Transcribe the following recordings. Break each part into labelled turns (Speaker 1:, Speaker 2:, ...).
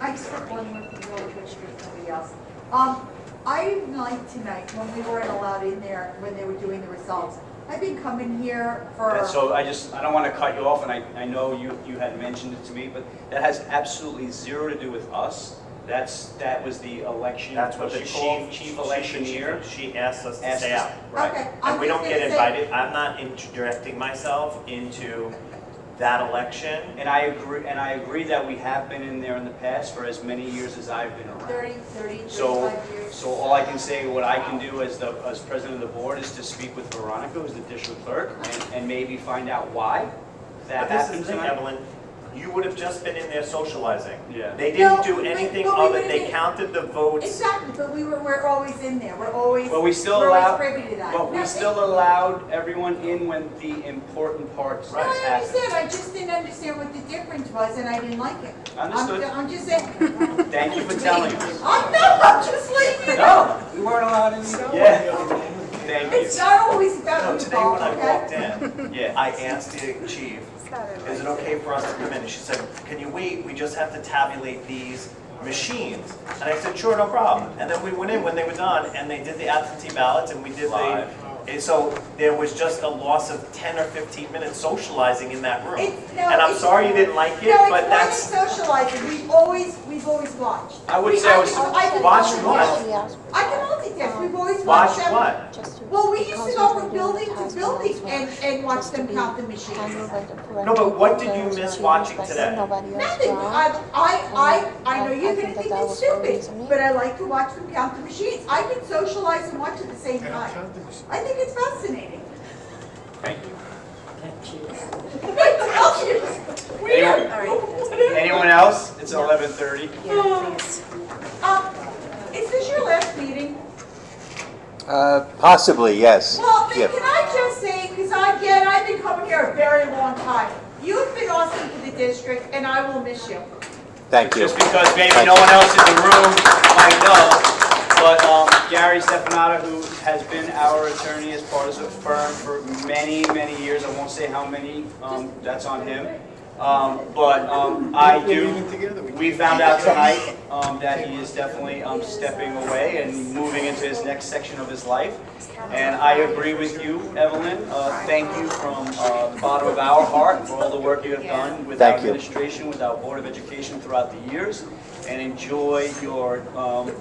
Speaker 1: I said one more thing really quick for somebody else. Um, I like tonight, when we weren't allowed in there, when they were doing the results, I've been coming here for,
Speaker 2: And so I just, I don't want to cut you off, and I, I know you, you had mentioned it to me, but that has absolutely zero to do with us. That's, that was the election,
Speaker 3: That's what
Speaker 2: what
Speaker 3: the
Speaker 2: she
Speaker 3: chief,
Speaker 2: called,
Speaker 3: chief
Speaker 2: chief
Speaker 3: electioneer,
Speaker 2: electioneer.
Speaker 3: she asked us to
Speaker 2: Asked
Speaker 3: stay
Speaker 2: us-
Speaker 3: out.
Speaker 2: Right.
Speaker 1: okay, I'm
Speaker 3: And we
Speaker 1: just
Speaker 3: don't get
Speaker 1: gonna say-
Speaker 3: invited, I'm not interjecting myself into that election.
Speaker 2: And I agree, and I agree that we have been in there in the past for as many years as I've been around.
Speaker 1: 30, 30,
Speaker 2: So,
Speaker 1: 35 years.
Speaker 2: so all I can say, what I can do as the, as president of the board is to speak with Veronica, who's the district clerk, and, and maybe find out why
Speaker 3: But
Speaker 2: that
Speaker 3: this is
Speaker 2: happened
Speaker 3: the thing,
Speaker 2: tonight.
Speaker 3: Evelyn, you would have just been in there socializing.
Speaker 2: Yeah.
Speaker 3: They
Speaker 1: No,
Speaker 3: didn't do
Speaker 1: but-
Speaker 3: anything
Speaker 1: but we
Speaker 3: other,
Speaker 1: would've
Speaker 3: they
Speaker 1: been-
Speaker 3: counted the votes.
Speaker 1: Exactly, but we were, we're always in there, we're always,
Speaker 2: Well, we still
Speaker 1: we're
Speaker 2: allow,
Speaker 1: always privy to that.
Speaker 2: but
Speaker 1: No,
Speaker 2: we still allowed everyone in when the important parts
Speaker 1: No, I
Speaker 2: happened.
Speaker 1: understand, I just didn't understand what the difference was, and I didn't like it. I'm-
Speaker 2: Understood.
Speaker 1: I'm just saying,
Speaker 2: Thank you for telling us.
Speaker 1: I'm not, I'm just leaving it.
Speaker 2: No, we weren't allowed in. Yeah, thank
Speaker 1: It's
Speaker 2: you.
Speaker 1: not always about
Speaker 3: So
Speaker 1: you,
Speaker 3: today when
Speaker 1: Bob,
Speaker 3: I walked
Speaker 1: okay?
Speaker 3: in,
Speaker 2: Yeah,
Speaker 3: I asked the chief, is it okay for us to come in? And she said, can you wait, we just have to tabulate these machines. And I said, sure, no problem. And then we went in when they were done, and they did the absentee ballots, and we did the,
Speaker 2: Live.
Speaker 3: and so there was just a loss of 10 or 15 minutes socializing in that room.
Speaker 1: It's- no,
Speaker 3: And I'm
Speaker 1: it's-
Speaker 3: sorry you didn't like it,
Speaker 1: No,
Speaker 3: but
Speaker 1: it's
Speaker 3: that's,
Speaker 1: more than socializing, we've always, we've always watched.
Speaker 2: I would
Speaker 1: We-
Speaker 2: say I was-
Speaker 1: can- can
Speaker 3: watch
Speaker 1: multitask.
Speaker 3: what?
Speaker 1: I can multitask, we've always
Speaker 3: watch
Speaker 1: watched them.
Speaker 3: what?
Speaker 1: Well, we used to go from building to building and, and watch them count the machines.
Speaker 3: No, but what did you miss watching today?
Speaker 1: Nothing, I, I, I, I know you're gonna think it's stupid, but I like to watch them count the machines. I can socialize and watch at the same time. I think it's fascinating.
Speaker 2: Thank you.
Speaker 1: I tell you, it's weird.
Speaker 2: Anyone else? It's 11:30.
Speaker 1: Oh, Um, is this your last meeting?
Speaker 4: Uh, Possibly, yes.
Speaker 1: Well, then
Speaker 4: Yep.
Speaker 1: can I just say, because I get, I've been coming here a very long time. You've been awesome to the district, and I will miss you.
Speaker 4: Thank you.
Speaker 2: Just because maybe
Speaker 4: Thank
Speaker 2: no
Speaker 4: you.
Speaker 2: one else in the room might know, but um, Gary Stefanata, who has been our attorney as part of the firm for many, many years, I won't say how many, um, that's on him. Um, But um, I do, we found out tonight um, that he is definitely um, stepping away and moving into his next section of his life. And I agree with you, Evelyn. Uh, Thank you from uh, the bottom of our heart for all the work you have done with our
Speaker 4: Thank you.
Speaker 2: administration, with our Board of Education throughout the years, and enjoy your, um,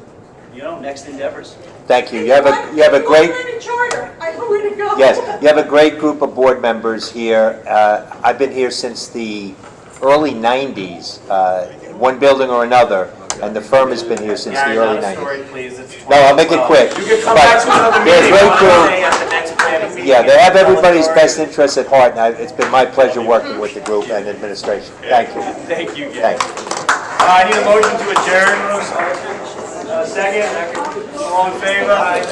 Speaker 2: you know, next endeavors.
Speaker 4: Thank you. You have a, you have a great,
Speaker 1: We're in a charter. I know where to go.
Speaker 4: yes, you have a great group of board members here. Uh, I've been here since the early 90s, uh, one building or another, and the firm has been here since the
Speaker 3: Gary,
Speaker 4: early
Speaker 3: not a
Speaker 4: 90s.
Speaker 3: story, please, it's
Speaker 4: No, I'll make it
Speaker 3: 12.
Speaker 4: quick.
Speaker 3: You can come back to
Speaker 4: But
Speaker 3: another
Speaker 4: they're a
Speaker 3: meeting,
Speaker 4: great
Speaker 3: I'll
Speaker 4: group.
Speaker 3: say at the next planning meeting.
Speaker 4: Yeah, they have everybody's
Speaker 3: Tell
Speaker 4: best
Speaker 3: them.
Speaker 4: interests at heart, and I- it's been my pleasure working with the group and administration. Thank you.
Speaker 2: Thank you, Gary.
Speaker 4: Thank you.
Speaker 2: Uh, I need a motion to adjourn. Uh, Second, all in favor?